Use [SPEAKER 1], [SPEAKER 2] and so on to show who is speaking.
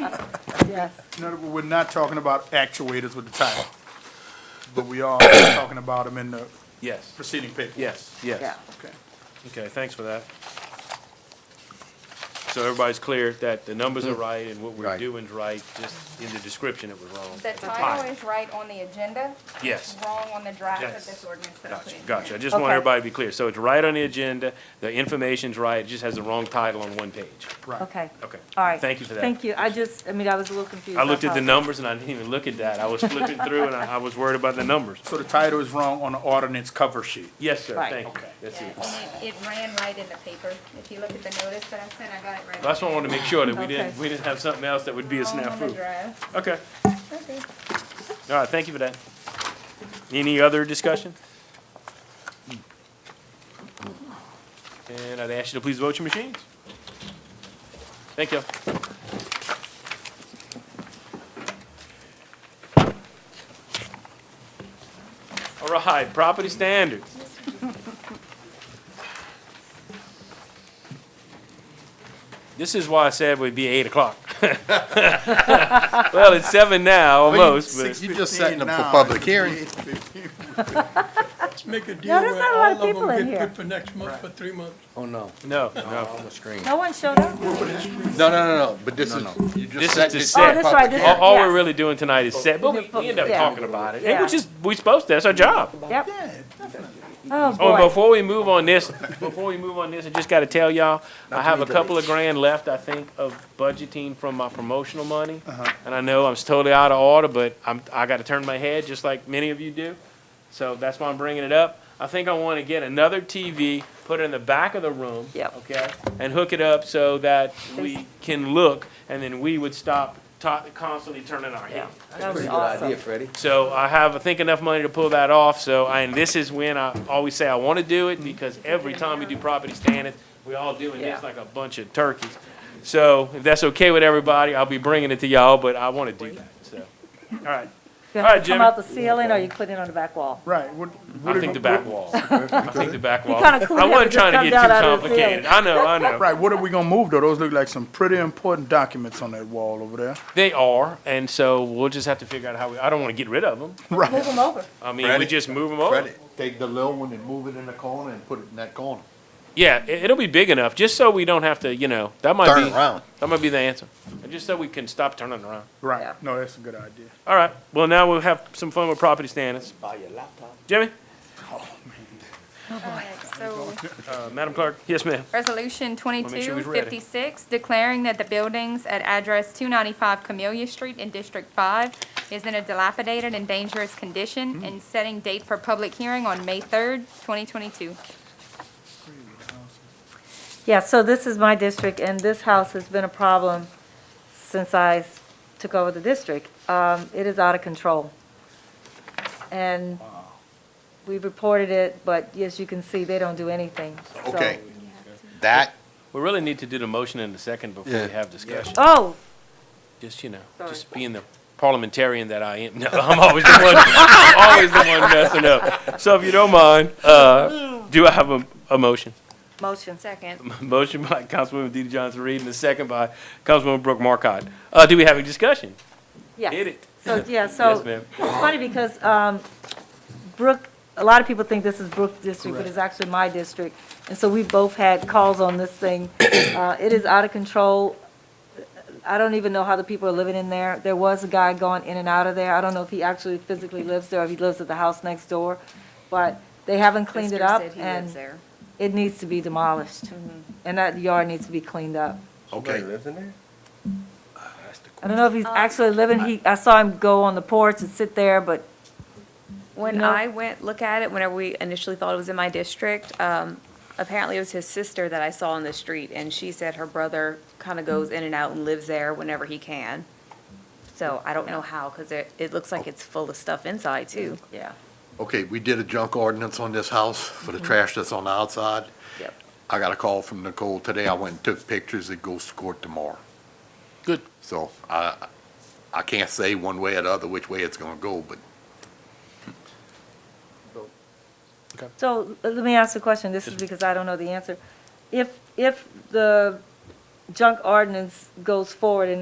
[SPEAKER 1] Yes.
[SPEAKER 2] In other words, we're not talking about actuators with the title, but we are talking about them in the
[SPEAKER 3] Yes,
[SPEAKER 2] preceding paper.
[SPEAKER 3] yes,
[SPEAKER 1] Yeah.
[SPEAKER 3] yes.
[SPEAKER 2] Okay.
[SPEAKER 3] Okay, thanks for that. So everybody's clear that the numbers
[SPEAKER 1] Mm-hmm.
[SPEAKER 3] are right and what we're
[SPEAKER 4] Right.
[SPEAKER 3] doing is right, just in the description it was wrong.
[SPEAKER 5] The title is right on the agenda.
[SPEAKER 3] Yes.
[SPEAKER 5] Wrong on the draft
[SPEAKER 3] Yes.
[SPEAKER 5] of this ordinance that I put
[SPEAKER 3] Gotcha,
[SPEAKER 5] in.
[SPEAKER 3] gotcha. I just want
[SPEAKER 1] Okay.
[SPEAKER 3] everybody to be clear. So it's right on the agenda, the information's right, it just has the wrong title on one page.
[SPEAKER 2] Right.
[SPEAKER 1] Okay.
[SPEAKER 3] Okay.
[SPEAKER 1] All right.
[SPEAKER 3] Thank you for that.
[SPEAKER 1] Thank you. I just, I mean, I was a little confused.
[SPEAKER 3] I looked at the
[SPEAKER 1] number.
[SPEAKER 3] numbers and I didn't even look at that. I was flipping through and I, I was worried about the numbers.
[SPEAKER 2] So the title is wrong on the ordinance cover sheet.
[SPEAKER 3] Yes, sir,
[SPEAKER 1] Right.
[SPEAKER 3] thank you.
[SPEAKER 2] Okay.
[SPEAKER 3] That's
[SPEAKER 5] Yeah,
[SPEAKER 3] it.
[SPEAKER 5] And it, it ran right in the paper. If you look at the notice that I sent, I got it right.
[SPEAKER 3] That's why I wanted to make sure that we didn't,
[SPEAKER 1] Okay.
[SPEAKER 3] we didn't have something else that would be a
[SPEAKER 5] Wrong on the
[SPEAKER 3] snafu.
[SPEAKER 5] draft.
[SPEAKER 3] Okay,
[SPEAKER 5] Okay.
[SPEAKER 3] all right, thank you for that. Any other discussion? And I'd ask you to please vote your machines. Thank you. All right, property standards. This is why I said we'd be eight o'clock. Well, it's seven now, almost, but.
[SPEAKER 4] You just setting them for
[SPEAKER 2] 15 now,
[SPEAKER 4] public
[SPEAKER 2] it's
[SPEAKER 4] hearing.
[SPEAKER 2] 8:15.
[SPEAKER 6] Let's make a deal
[SPEAKER 1] there's
[SPEAKER 6] where
[SPEAKER 1] not a lot of
[SPEAKER 6] all of
[SPEAKER 1] people in
[SPEAKER 6] them get
[SPEAKER 1] here.
[SPEAKER 6] put for next month, for three months.
[SPEAKER 4] Oh, no.
[SPEAKER 3] No, no.
[SPEAKER 4] On the screen.
[SPEAKER 1] No one showed up?
[SPEAKER 4] No, no, no, no, but this is, you
[SPEAKER 3] This is
[SPEAKER 4] just set
[SPEAKER 3] to
[SPEAKER 4] this.
[SPEAKER 3] set.
[SPEAKER 4] for
[SPEAKER 3] Oh, that's
[SPEAKER 4] public
[SPEAKER 1] right, this is-
[SPEAKER 4] hearing.
[SPEAKER 3] All, all we're
[SPEAKER 1] Yes.
[SPEAKER 3] really doing tonight is set, but we, we end up
[SPEAKER 1] Yeah.
[SPEAKER 3] talking about it, and
[SPEAKER 1] Yeah.
[SPEAKER 3] which is, we supposed to, that's our job.
[SPEAKER 1] Yep. Oh,
[SPEAKER 3] Oh, and
[SPEAKER 1] boy.
[SPEAKER 3] before we move on this, before we move on this, I just gotta tell y'all, I have a couple of grand left, I think, of budgeting from my promotional money. And I know I'm totally out of order, but I'm, I gotta turn my head, just like many of you do. So that's why I'm bringing it up. I think I wanna get another TV, put it in the back of the room.
[SPEAKER 1] Yep.
[SPEAKER 3] Okay, and hook it up so that we can look, and then we would stop ta- constantly turning our head.
[SPEAKER 1] That was awesome.
[SPEAKER 4] Freddie.
[SPEAKER 3] So I have, I think, enough money to pull that off, so, and this is when I always say I wanna do it, because every time we do property standards, we all doing
[SPEAKER 1] Yeah.
[SPEAKER 3] this like a bunch of turkeys. So, if that's okay with everybody, I'll be bringing it to y'all, but I wanna do that, so. Alright,
[SPEAKER 1] You
[SPEAKER 3] All right,
[SPEAKER 1] have to come
[SPEAKER 3] Jimmy.
[SPEAKER 1] out the ceiling or you put it on the back wall?
[SPEAKER 2] Right. what- what
[SPEAKER 3] I
[SPEAKER 2] if-
[SPEAKER 3] think the back wall, I think the back wall.
[SPEAKER 1] kinda cool
[SPEAKER 3] I
[SPEAKER 1] to have it
[SPEAKER 3] wasn't
[SPEAKER 1] just
[SPEAKER 3] trying
[SPEAKER 1] come
[SPEAKER 3] to get
[SPEAKER 1] down
[SPEAKER 3] too
[SPEAKER 1] out of the
[SPEAKER 3] complicated, I know, I know.
[SPEAKER 2] Right, what are we gonna move though? Those look like some pretty important documents on that wall over there.
[SPEAKER 3] They are, and so we'll just have to figure out how we, I don't wanna get rid of them,
[SPEAKER 1] Move
[SPEAKER 2] Right.
[SPEAKER 1] them over.
[SPEAKER 3] I mean, we
[SPEAKER 4] Freddie.
[SPEAKER 3] just move them over.
[SPEAKER 4] Freddie, take the little one and move it in the corner and put it in that corner.
[SPEAKER 3] Yeah, it, it'll be big enough, just so we don't have to, you know, that might
[SPEAKER 4] Turn
[SPEAKER 3] be.
[SPEAKER 4] it around.
[SPEAKER 3] That might be the answer. Just so we can stop turning around.
[SPEAKER 1] Yeah.
[SPEAKER 2] Right. No, that's a good idea.
[SPEAKER 3] All right, well, now we'll have some fun with property standards.
[SPEAKER 4] Buy your laptop.
[SPEAKER 3] Jimmy?
[SPEAKER 2] Oh,
[SPEAKER 5] Alright, So,
[SPEAKER 3] Uh, Madam Clerk? Yes, ma'am.
[SPEAKER 5] resolution
[SPEAKER 3] make sure
[SPEAKER 5] twenty-two
[SPEAKER 3] he's ready.
[SPEAKER 5] fifty-six, declaring that the buildings at address two ninety-five Camellia Street in District Five is in a dilapidated and dangerous
[SPEAKER 3] Hmm.
[SPEAKER 5] condition, and setting date for public hearing on May third, twenty twenty-two.
[SPEAKER 1] Yeah, so this is my district, and this house has been a problem since I s- took over the district. Um, It is out of control. And we reported it, but as you can see, they don't do anything. so-
[SPEAKER 4] Okay, that,
[SPEAKER 3] We really need to do the motion in a second before
[SPEAKER 4] Yeah.
[SPEAKER 3] we have discussion.
[SPEAKER 1] Oh,
[SPEAKER 3] Just, you know,
[SPEAKER 1] Sorry.
[SPEAKER 3] just being the parliamentarian that I am. No, I'm always the one, I'm always the one messing up. So if you don't mind, uh, do I have a, a motion?
[SPEAKER 1] motion.
[SPEAKER 5] Second.
[SPEAKER 3] Motion by Councilwoman DeeDee Johnson-Reed and a second by Councilwoman Brooke Marcotte. Uh, do we have a discussion?
[SPEAKER 1] Yes.
[SPEAKER 3] Hit it.
[SPEAKER 1] So, yeah,
[SPEAKER 3] Yes,
[SPEAKER 1] so
[SPEAKER 3] ma'am.
[SPEAKER 1] It's funny because um, Brook, a lot of people think this is Brook District, but it's actually my district. And so we both had calls on this thing. Uh, It is out of control. I don't even know how the people are living in there. There was a guy going in and out of there. I don't know if he actually physically lives there, or if he lives at the house next door. But they haven't cleaned it
[SPEAKER 5] Sister
[SPEAKER 1] up,
[SPEAKER 5] said he lives
[SPEAKER 1] and
[SPEAKER 5] there. Mm-hmm.
[SPEAKER 1] it needs to be demolished. And that yard needs to be cleaned up.
[SPEAKER 4] okay.
[SPEAKER 1] I don't know if he's
[SPEAKER 5] Uh,
[SPEAKER 1] actually living, he, I saw him go on the porch and sit there, but
[SPEAKER 7] When
[SPEAKER 1] No.
[SPEAKER 7] I went look at it, whenever we initially thought it was in my district, um, apparently it was his sister that I saw on the street, and she said her brother kind of goes in and out and lives there whenever he can. So I don't know how, because it, it looks like it's full of stuff inside too.
[SPEAKER 1] yeah.
[SPEAKER 4] Okay, we did a junk ordinance on this house for the trash that's on the outside.
[SPEAKER 7] Yep.
[SPEAKER 4] I got a call from Nicole today. I went and took pictures. It goes to court tomorrow.
[SPEAKER 3] Good.
[SPEAKER 4] So I, I can't say one way or the other which way it's gonna go, but
[SPEAKER 1] So let me ask a question, this is because I don't know the answer. If, if the junk ordinance goes forward and